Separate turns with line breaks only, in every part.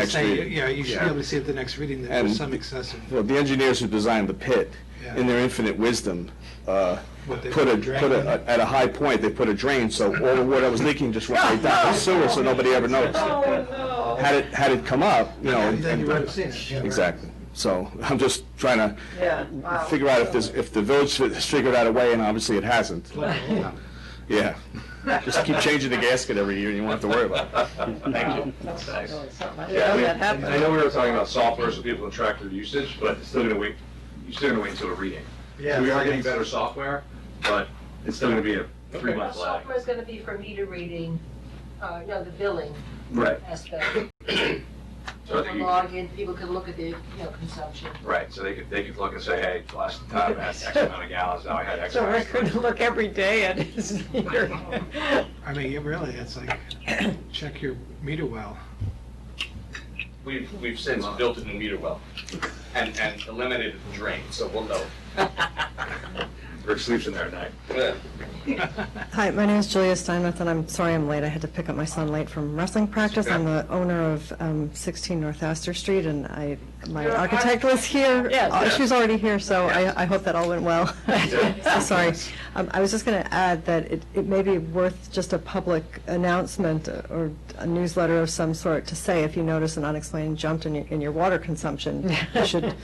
next
saying,
reading.
Yeah, you should be
Yeah.
able to see at the next reading that
And-
there's some excessive.
Well, the engineers who designed the pit,
Yeah.
in their infinite wisdom, uh,
What, they
put a,
put a
put
drain?
a, at a high point, they put a drain, so all the water was leaking just went right down the sewer, so nobody ever noticed.
Oh,
Had it, had it come up, you know.
And then
and-
you would have seen it. yeah, right.
Exactly. So I'm just trying to
Yeah, wow.
figure out if this, if the village has figured out a way, and obviously it hasn't. Yeah. Just keep changing the gasket every year, and you won't have to worry about it.
Thank you.
That's what I know, it's something. I didn't
Yeah,
know
we-
that happened.
I know we were talking about software so people can track their usage, but it's still gonna wait, you're still gonna wait until a reading.
Yeah.
We are getting better software, but it's still gonna be a three
Well,
month lag.
software's gonna be for meter reading, uh, no, the billing
Right.
aspect.
So I
People
think you-
log in, people can look at their, you know, consumption.
Right, so they could, they could look and say, hey, last time I had X amount of gallons, now I had X
So
amount.
we're
of
going to look every day at his meter.
I mean, it really, it's like, check your meter well.
We've, we've since built it in meter well and, and eliminated the drain, so we'll know.
Rick sleeps in there at night.
Yeah.
Hi, my name is Julia Steinmetz, and I'm sorry I'm late. I had to pick up my son late from wrestling practice. I'm the owner of um, 16 North Astor Street, and I, my
You're an
architect was here.
Yes.
Uh, She's already here, so I, I hope that all went well. So sorry. Um, I was just going to add that it, it may be worth just a public announcement uh, or a newsletter of some sort to say, if you notice an unexplained jump in your, in your water consumption, you should,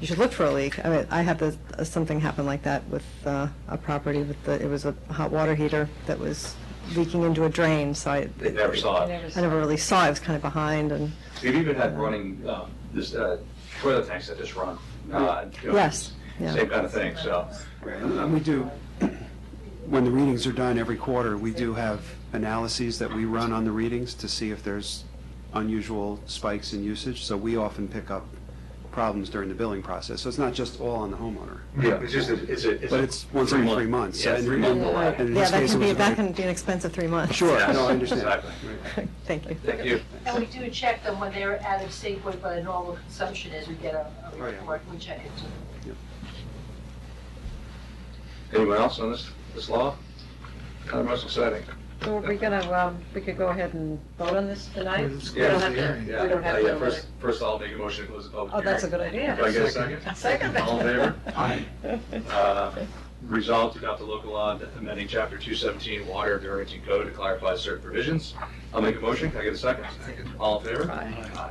you should look for a leak. I mean, I had this, uh, something happen like that with uh, a property with the, it was a hot water heater that was leaking into a drain, so I,
They never saw it.
I never really saw, it. I was kind of behind, and,
We've even had running, um, this, uh, toilet tanks that just run. uh, you know,
Yes, yeah.
Same kind of thing, so.
And we do, when the readings are done every quarter, we do have analyses that we run on the readings to see if there's unusual spikes in usage, so we often pick up problems during the billing process. So it's not just all on the homeowner,
Yeah, it's just, a- it's a.
but it's once every
three
three months.
Yeah,
and-
three month delay.
and in
yeah,
this
that
case,
can
it
be,
was a
that
very-
can be an expense of three months.
Sure, no, I understand.
Exactly.
Thank you.
Thank you.
And we do check them when they're out of sync with what a normal consumption is, we get a a
Oh, yeah.
report, we check it too.
Anyone else on this, this law? Kind of most exciting.
So are we going to, we could go ahead and vote on this tonight?
Let's
We don't have
close the
to, we
Yeah,
don't
uh,
have
yeah,
to.
first, first I'll make a motion to close the public
Oh,
hearing.
that's a good idea.
Do I get a second?
Second.
All in favor? Uh, Resolved to adopt the local law amending chapter two seventeen water of the Irvington Code to clarify certain provisions. I'll make a motion. Can I get a second? All in favor? Aye.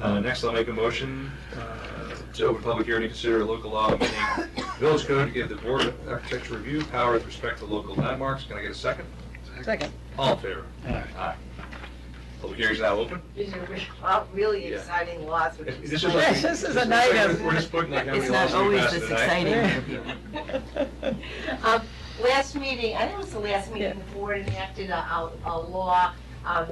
Uh, next, I'll make a motion, uh, to open public hearing to consider a local law amending village code to give the board of architecture review power with respect to local landmarks. Can I get a second?
Second.
All in favor? Aye. Public hearing's now open.
These are re-
Really
exciting laws,
This is
Yes, this is a night of-
We're just putting like how many
It's not
laws we
always
passed
this
tonight.
exciting.
Um, Last meeting, I think it was the last meeting, the board enacted a, a a law um,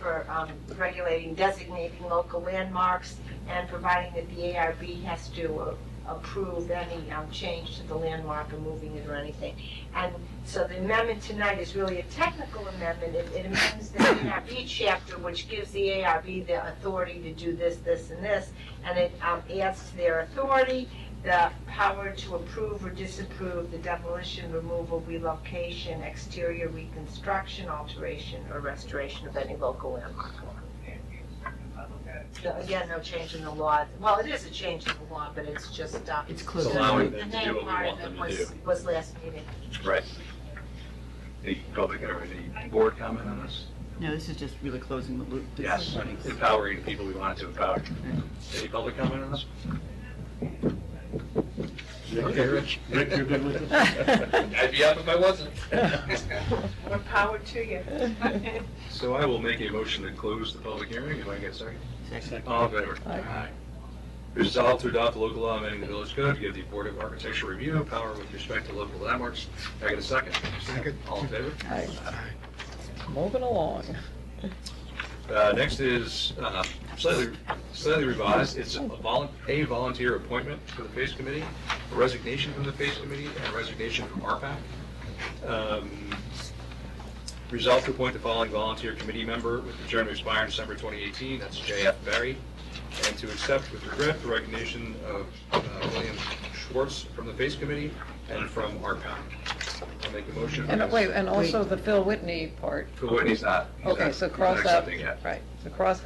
for um, regulating, designating local landmarks and providing that the ARB has to uh, approve any um, change to the landmark or moving it or anything. And so the amendment tonight is really a technical amendment. It it amends the ARB chapter, which gives the ARB the authority to do this, this, and this. And it um, adds to their authority the power to approve or disapprove the demolition, removal, relocation, exterior reconstruction, alteration, or restoration of any local landmark. So Again, no change in the law. Well, it is a change in the law, but it's just, uh.
It's close.
It's allowing them
the
to do
main
what we
part
want
of it
them to
was- Was last meeting.
Right. Any public or any board comment on this?
No, this is just really closing the loop. This is
Yes,
running.
empowering the people we wanted to empower. Any public comment on this? Okay, Rich. Rick, you're good with it?
I'd be up if I wasn't.
More power to you.
So I will make a motion to close the public hearing. If I get a second?
Second.
All in favor? Aye. Resolved to adopt the local law amending the village code to give the Board of Architecture review power with respect to local landmarks. Can I get a second?
Second.
All in favor?
Moving along.
Uh, Next is uh, slightly slightly revised, it's a volun- a volunteer appointment for the PACE Committee, a resignation from the PACE Committee, and a resignation from RPAC. Um, Resolve to appoint the following volunteer committee member with the term to expire in December 2018, that's J.F. Barry, and to accept with regret the resignation of uh, William Schwartz from the PACE Committee and from RPAC. I'll make a motion.
And wait, and also the Phil Whitney part.
Who, he's not. he's
Okay,
not-
so
he's not
cross out,
accepting yet.
right, so cross